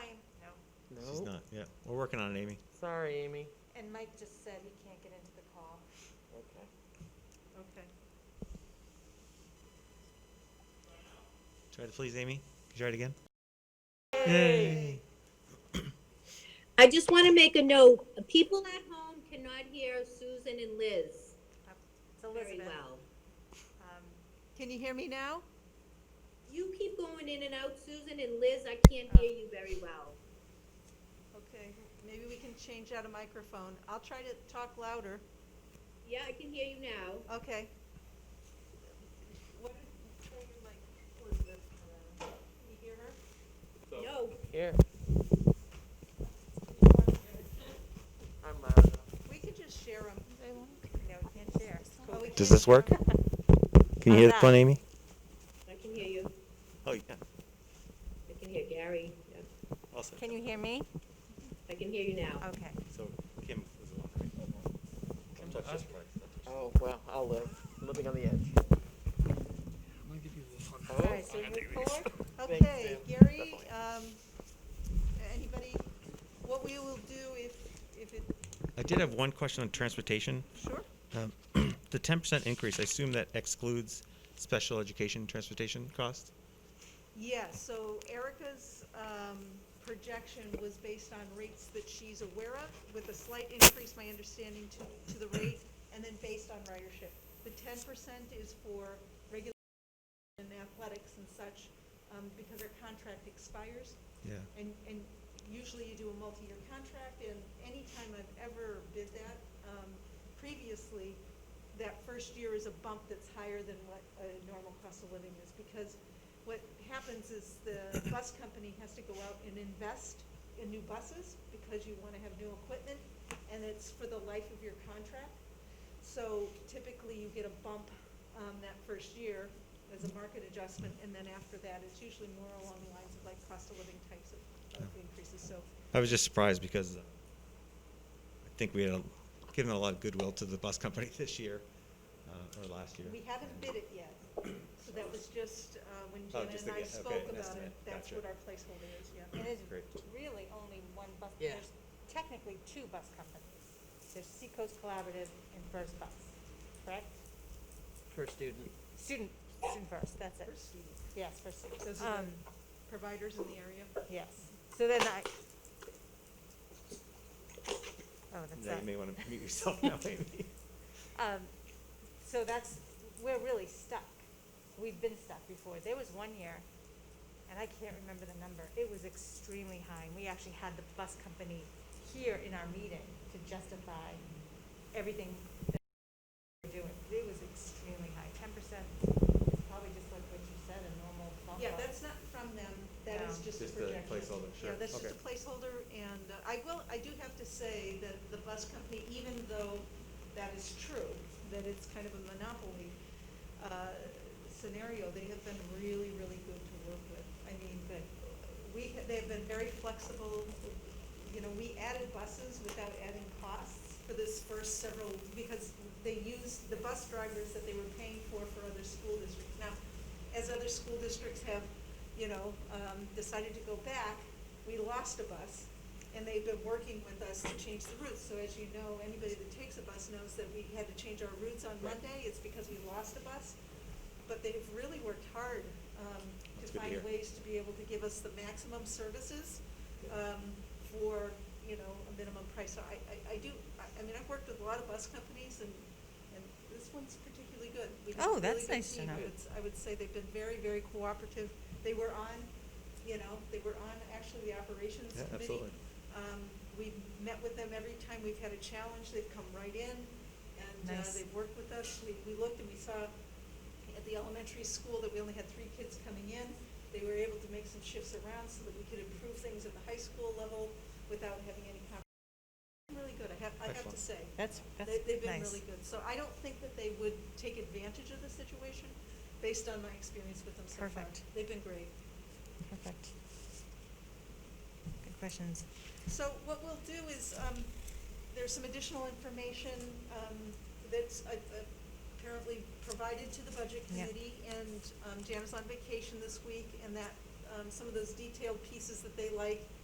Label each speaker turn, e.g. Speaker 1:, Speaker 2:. Speaker 1: It's not, yeah. We're working on it, Amy.
Speaker 2: Sorry, Amy.
Speaker 3: And Mike just said he can't get into the call.
Speaker 2: Okay.
Speaker 4: Okay.
Speaker 1: Try to please Amy. Can you try it again? Yay.
Speaker 5: I just want to make a note. People at home cannot hear Susan and Liz
Speaker 3: It's
Speaker 5: very
Speaker 3: Elizabeth.
Speaker 5: well.
Speaker 3: Um,
Speaker 4: Can you hear me now?
Speaker 5: You keep going in and out, Susan and Liz. I can't hear you very well.
Speaker 4: Okay, maybe we can change out a microphone. I'll try to talk louder.
Speaker 5: Yeah, I can hear you now.
Speaker 4: Okay. What is, turn your mic, Elizabeth, around. Can you hear her?
Speaker 5: No,
Speaker 2: Here. I'm
Speaker 4: We could just share Oh, them.
Speaker 3: No, we can't share.
Speaker 1: Does this work? Can you hear the
Speaker 3: How's
Speaker 1: phone,
Speaker 3: that?
Speaker 1: Amy?
Speaker 5: I can hear you.
Speaker 1: Oh, yeah.
Speaker 5: I can hear Gary. Yeah,
Speaker 1: Also,
Speaker 3: Can you hear me?
Speaker 5: I can hear you now.
Speaker 3: Okay.
Speaker 1: so Kim was the one. Sometimes she's right, sometimes-
Speaker 2: Oh, well, I'll live. Living on the edge.
Speaker 3: All right, so you're four?
Speaker 4: Okay, Gary, um, anybody, what we will do if, if it,
Speaker 1: I did have one question on transportation.
Speaker 4: sure?
Speaker 1: Um, The ten percent increase, I assume that excludes special education transportation costs?
Speaker 4: Yeah, so Erica's um, projection was based on rates that she's aware of, with a slight increase, my understanding, to, to the rate, and then based on ridership. The ten percent is for regular and athletics and such, um, because our contract expires,
Speaker 1: Yeah.
Speaker 4: and, and usually you do a multi-year contract, and anytime I've ever bid that, um, previously, that first year is a bump that's higher than what a normal cost of living is, because what happens is the bus company has to go out and invest in new buses, because you wanna have new equipment, and it's for the life of your contract. So typically, you get a bump um, that first year as a market adjustment, and then after that, it's usually more along the lines of like cost of living types of, of increases, so.
Speaker 1: I was just surprised because uh, I think we had a- given a lot of goodwill to the bus company this year, uh, or last year.
Speaker 4: We haven't bid it yet, so that was just, uh, when
Speaker 1: Oh,
Speaker 4: Janet
Speaker 1: just
Speaker 4: and
Speaker 1: to
Speaker 4: I
Speaker 1: get- okay,
Speaker 4: spoke about
Speaker 1: an
Speaker 4: it,
Speaker 1: estimate.
Speaker 4: that's
Speaker 1: Gotcha.
Speaker 4: what our placeholder is, yeah.
Speaker 3: It is
Speaker 1: Great.
Speaker 3: really only one bus,
Speaker 2: Yeah.
Speaker 3: there's technically two bus companies. There's Seacoast Collaborative and First Bus, correct?
Speaker 2: Per student.
Speaker 3: Student, student first, that's it.
Speaker 4: For students,
Speaker 3: Yes, for students.
Speaker 4: Those are the-
Speaker 3: Um,
Speaker 4: Providers in the area.
Speaker 3: Yes. So then I. Oh, that's
Speaker 1: Now
Speaker 3: that.
Speaker 1: you may want to mute yourself now, Amy.
Speaker 3: Um, so that's, we're really stuck. We've been stuck before. There was one year, and I can't remember the number, it was extremely high. And we actually had the bus company here in our meeting to justify everything that we're doing. It was extremely high. Ten percent is probably just like what you said, a normal bump
Speaker 4: Yeah,
Speaker 3: up.
Speaker 4: that's not from them, that is
Speaker 3: No.
Speaker 4: just a
Speaker 1: Just a
Speaker 4: projection.
Speaker 1: placeholder, sure.
Speaker 4: Yeah, that's just
Speaker 1: Okay.
Speaker 4: a placeholder, and uh, I will, I do have to say that the bus company, even though that is true, that it's kind of a monopoly uh, scenario, they have been really, really good to work with. I mean, but we, they've been very flexible, you know, we added buses without adding costs for this first several, because they used the bus drivers that they were paying for for other school districts. Now, as other school districts have, you know, um, decided to go back, we lost a bus, and they've been working with us to change the routes. So as you know, anybody that takes a bus knows that we had to change our routes on
Speaker 1: Right.
Speaker 4: Monday, it's because we lost a bus. But they've really worked hard, um, to
Speaker 1: That's good to
Speaker 4: find
Speaker 1: hear.
Speaker 4: ways to be able to give us the maximum services, um, for, you know, a minimum price. So I, I, I do, I, I mean, I've worked with a lot of bus companies and, and this one's particularly good. We have a
Speaker 3: Oh,
Speaker 4: really
Speaker 3: that's
Speaker 4: good
Speaker 3: nice to
Speaker 4: team.
Speaker 3: know.
Speaker 4: I would s- I would say they've been very, very cooperative. They were on, you know, they were on actually the operations
Speaker 1: Yeah,
Speaker 4: committee.
Speaker 1: absolutely.
Speaker 4: Um, we've met with them every time we've had a challenge, they've come right in, and, uh,
Speaker 3: Nice.
Speaker 4: they've worked with us. We, we looked and we saw at the elementary school that we only had three kids coming in. They were able to make some shifts around so that we could improve things at the high school level without having any compromise. Really good, I have, I have
Speaker 1: Excellent.
Speaker 4: to say.
Speaker 3: That's, that's
Speaker 4: They-
Speaker 3: nice.
Speaker 4: They've been really good, so I don't think that they would take advantage of the situation, based on my experience with them so far.
Speaker 3: Perfect.
Speaker 4: They've been great.
Speaker 3: Perfect. Good questions.
Speaker 4: So what we'll do is, um, there's some additional information, um, that's uh, uh, apparently provided to the budget
Speaker 3: Yeah.
Speaker 4: committee, and, um, Jan is on vacation this week, and that, um, some of those detailed pieces that they like